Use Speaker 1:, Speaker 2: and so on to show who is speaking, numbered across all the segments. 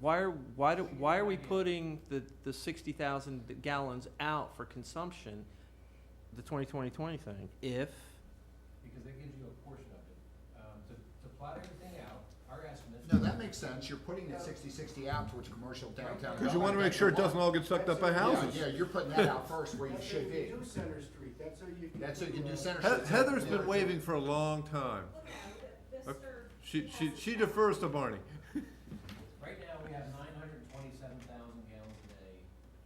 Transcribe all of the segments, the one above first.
Speaker 1: why are, why do, why are we putting the, the sixty thousand gallons out for consumption, the twenty twenty twenty thing, if,
Speaker 2: because that gives you a portion of it. Um, to, to plot everything out, our estimate.
Speaker 3: No, that makes sense, you're putting that sixty, sixty out towards commercial downtown.
Speaker 4: Because you want to make sure it doesn't all get sucked up by
Speaker 3: Yeah,
Speaker 4: houses.
Speaker 3: yeah, you're putting that out first where you should
Speaker 5: That's how you
Speaker 3: be,
Speaker 5: can do Center Street, that's how you can.
Speaker 3: that's what you can do
Speaker 5: uh,
Speaker 3: center.
Speaker 4: He-
Speaker 3: streets.
Speaker 4: Heather's been
Speaker 3: Yeah.
Speaker 4: waving for a long time. She, she, she defers to Barney.
Speaker 2: Right now, we have nine hundred and twenty-seven thousand gallons a day,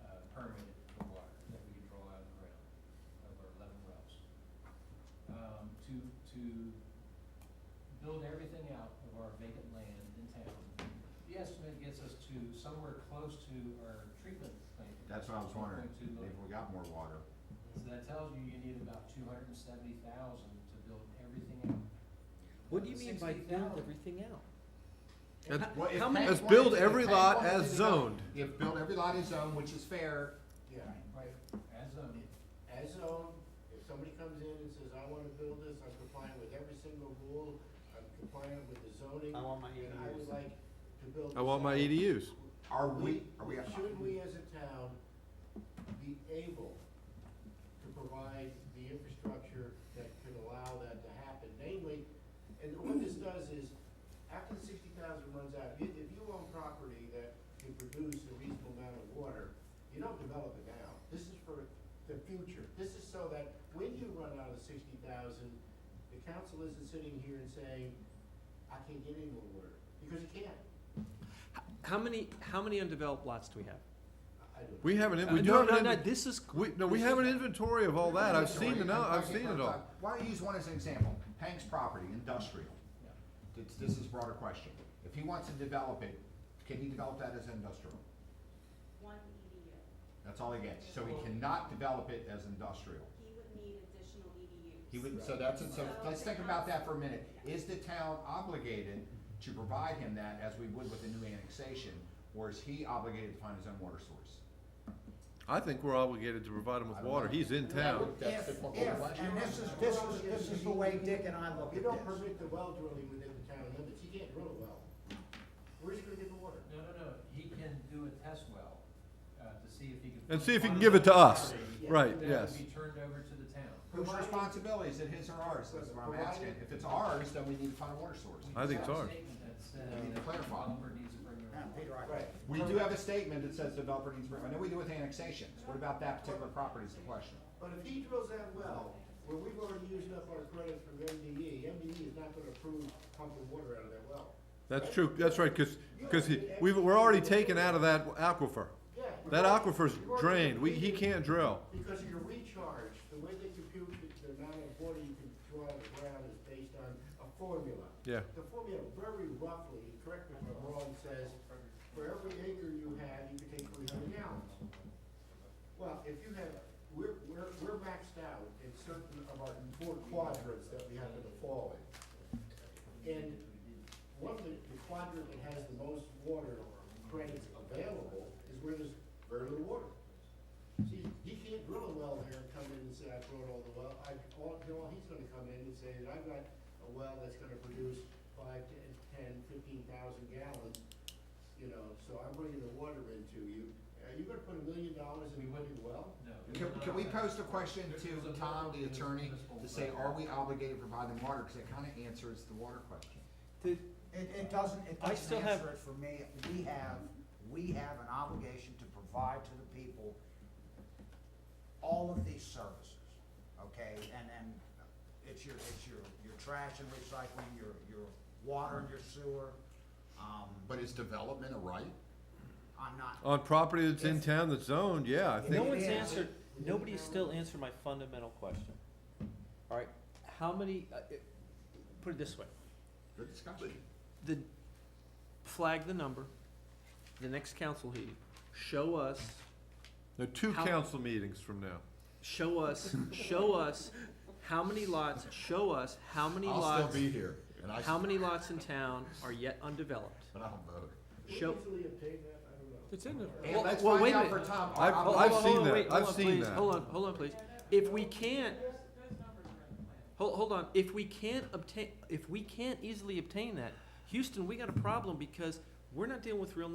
Speaker 2: uh, permitted for water that we can draw out of the ground, of our eleven wells. Um, to, to build everything out of our vacant land in town, the estimate gets us to somewhere close to our treatment plant.
Speaker 3: That's what I was wondering,
Speaker 2: 1.2
Speaker 3: if
Speaker 2: million.
Speaker 3: we got more water.
Speaker 2: So that tells you you need about two hundred and seventy thousand to build everything out.
Speaker 1: what do you mean by build
Speaker 2: 60,000.
Speaker 1: everything out?
Speaker 4: That's-
Speaker 3: Well, if
Speaker 1: How many-
Speaker 3: Hank
Speaker 4: Let's build
Speaker 3: wanted-
Speaker 4: every
Speaker 3: if Hank
Speaker 4: lot
Speaker 3: wanted
Speaker 4: as
Speaker 3: to do-
Speaker 4: zoned.
Speaker 3: If build every lot as zoned, which is fair,
Speaker 5: Yeah,
Speaker 2: Right, as of,
Speaker 5: as zone, if somebody comes in and says, I wanna build this, I'm complying with every single rule, I'm compliant with the zoning.
Speaker 6: I want my E
Speaker 5: And I would
Speaker 6: ADUs.
Speaker 5: like to build.
Speaker 4: I want
Speaker 5: this
Speaker 4: my E
Speaker 5: out."
Speaker 4: EDUs.
Speaker 3: are we, are we?
Speaker 5: Should we as a town be able to provide the infrastructure that could allow that to happen? Namely, and what this does is, after the sixty thousand runs out, if, if you own property that can produce a reasonable amount of water, you don't develop it now. This is for the future. This is so that when you run out of sixty thousand, the council isn't sitting here and saying, I can't get any more water, because you can't.
Speaker 1: How many, how many undeveloped lots do we have?
Speaker 5: I I don't know.
Speaker 4: We have
Speaker 1: Uh,
Speaker 4: an, we do
Speaker 1: No,
Speaker 4: have
Speaker 1: no,
Speaker 4: an,
Speaker 1: no,
Speaker 4: inven-
Speaker 1: this is,
Speaker 4: we, no, we have an inventory of all that. I've seen the, no, I've seen it all.
Speaker 3: Why don't you use one as an example? Hank's property, industrial.
Speaker 2: yeah.
Speaker 3: It's, this is a broader question. If he wants to develop it, can he develop that as industrial?
Speaker 7: One EDU.
Speaker 3: That's all he gets. So he cannot develop it as industrial.
Speaker 7: He would need additional EDUs.
Speaker 3: He would, so that's, it. so let's think about that for a minute. Is the town obligated to provide him that as we would with a new annexation? Or is he obligated to find his own water source?
Speaker 4: I think we're obligated to provide him with water. He's in town.
Speaker 3: That's the
Speaker 8: If-
Speaker 3: question.
Speaker 8: if- and this is, this is, this is the way Dick and I look
Speaker 5: You
Speaker 8: at
Speaker 5: don't
Speaker 8: this.
Speaker 5: permit the well drilling within the town limits, you can't drill a well. Where's you gonna get the water?
Speaker 2: No, no, no, he can do a test well, uh, to see if he can.
Speaker 4: And see if he can give it to us. Right,
Speaker 2: That
Speaker 4: yes.
Speaker 2: would be turned over to the town.
Speaker 3: Whose responsibility? Is it his or ours? That's what I'm asking. If it's ours, then we need to find a water source.
Speaker 4: I think it's ours.
Speaker 3: We need to clarify.
Speaker 2: Lumber needs to bring
Speaker 8: Yeah,
Speaker 2: their.
Speaker 8: Peter, I-
Speaker 5: Right.
Speaker 3: We do have a statement that says developer needs, I know we do with annexations. What about that particular property is the question?
Speaker 5: But if he drills that well, where we've already used up our credits from E, MDE, MDE is not gonna approve pumping water out of that well.
Speaker 4: That's true. That's right, because, we've, we're already taken out of that aquifer.
Speaker 5: Yeah. you're
Speaker 4: That
Speaker 5: right.
Speaker 4: aquifer's
Speaker 5: You're already
Speaker 4: drained. We, he
Speaker 5: depleted
Speaker 4: can't drill.
Speaker 5: Because of your recharge, the way they compute the, the amount of water you can draw out of the ground is based on a formula.
Speaker 4: Yeah.
Speaker 5: The formula very roughly, correct me if I'm wrong, says for every acre you have, you can take three hundred gallons. Well, if you have, we're, we're, we're maxed out in certain of our four quadrants that we happen to fall in. And one of the, the quadrant that has the most water credits available is where there's very little water. See, he can't drill a well there and come in and say, I drilled all the well, I, all, you know, he's gonna come in and say that I've got a well that's gonna produce five, ten, ten, fifteen thousand gallons, you know, so I'm bringing the water into you. Are you gonna put a million dollars in one well?
Speaker 2: No.
Speaker 3: Can, can we post a question to Tom, the attorney, to say, are we obligated to provide them water? Cause that kinda answers the water question.
Speaker 1: the,
Speaker 8: It, it doesn't, it
Speaker 1: I still
Speaker 8: doesn't
Speaker 1: have-
Speaker 8: answer it for me. We have, we have an obligation to provide to the people all of these services, okay? And, and it's your, it's your, your trash and recycling, your, your water and your sewer. Um,
Speaker 3: But is development a right?
Speaker 8: I'm not,
Speaker 4: On property that's in town that's zoned, yeah, I
Speaker 1: no
Speaker 4: think,
Speaker 1: one's
Speaker 8: Yeah.
Speaker 1: answered, nobody's still answered my fundamental question. All right, how many, uh, it- put it this way,
Speaker 3: Good discussion.
Speaker 1: the, flag the number, the next council meeting, show us,
Speaker 4: there are two
Speaker 1: How-
Speaker 4: council meetings from now.
Speaker 1: show us, show us how many lots, show us how many lots,
Speaker 3: here, and I,
Speaker 1: how many lots in town are yet undeveloped.
Speaker 3: but I'll vote.
Speaker 1: Show,
Speaker 5: We easily obtain that, I don't know.
Speaker 1: it's in there.
Speaker 3: And let's
Speaker 1: well,
Speaker 3: find
Speaker 1: wait a
Speaker 3: out for
Speaker 1: minute.
Speaker 3: Tom.
Speaker 4: I've-
Speaker 3: I'll-
Speaker 1: Hold-
Speaker 4: I've
Speaker 1: hold-
Speaker 4: seen
Speaker 1: hold on,
Speaker 4: that.
Speaker 1: wait, hold
Speaker 4: I've
Speaker 1: on,
Speaker 4: seen
Speaker 1: please.
Speaker 4: that.
Speaker 1: Hold on, hold on, please. If we can't, hold, hold on, if we can't obtain, if we can't easily obtain that, Houston, we got a problem because we're not dealing with real numbers.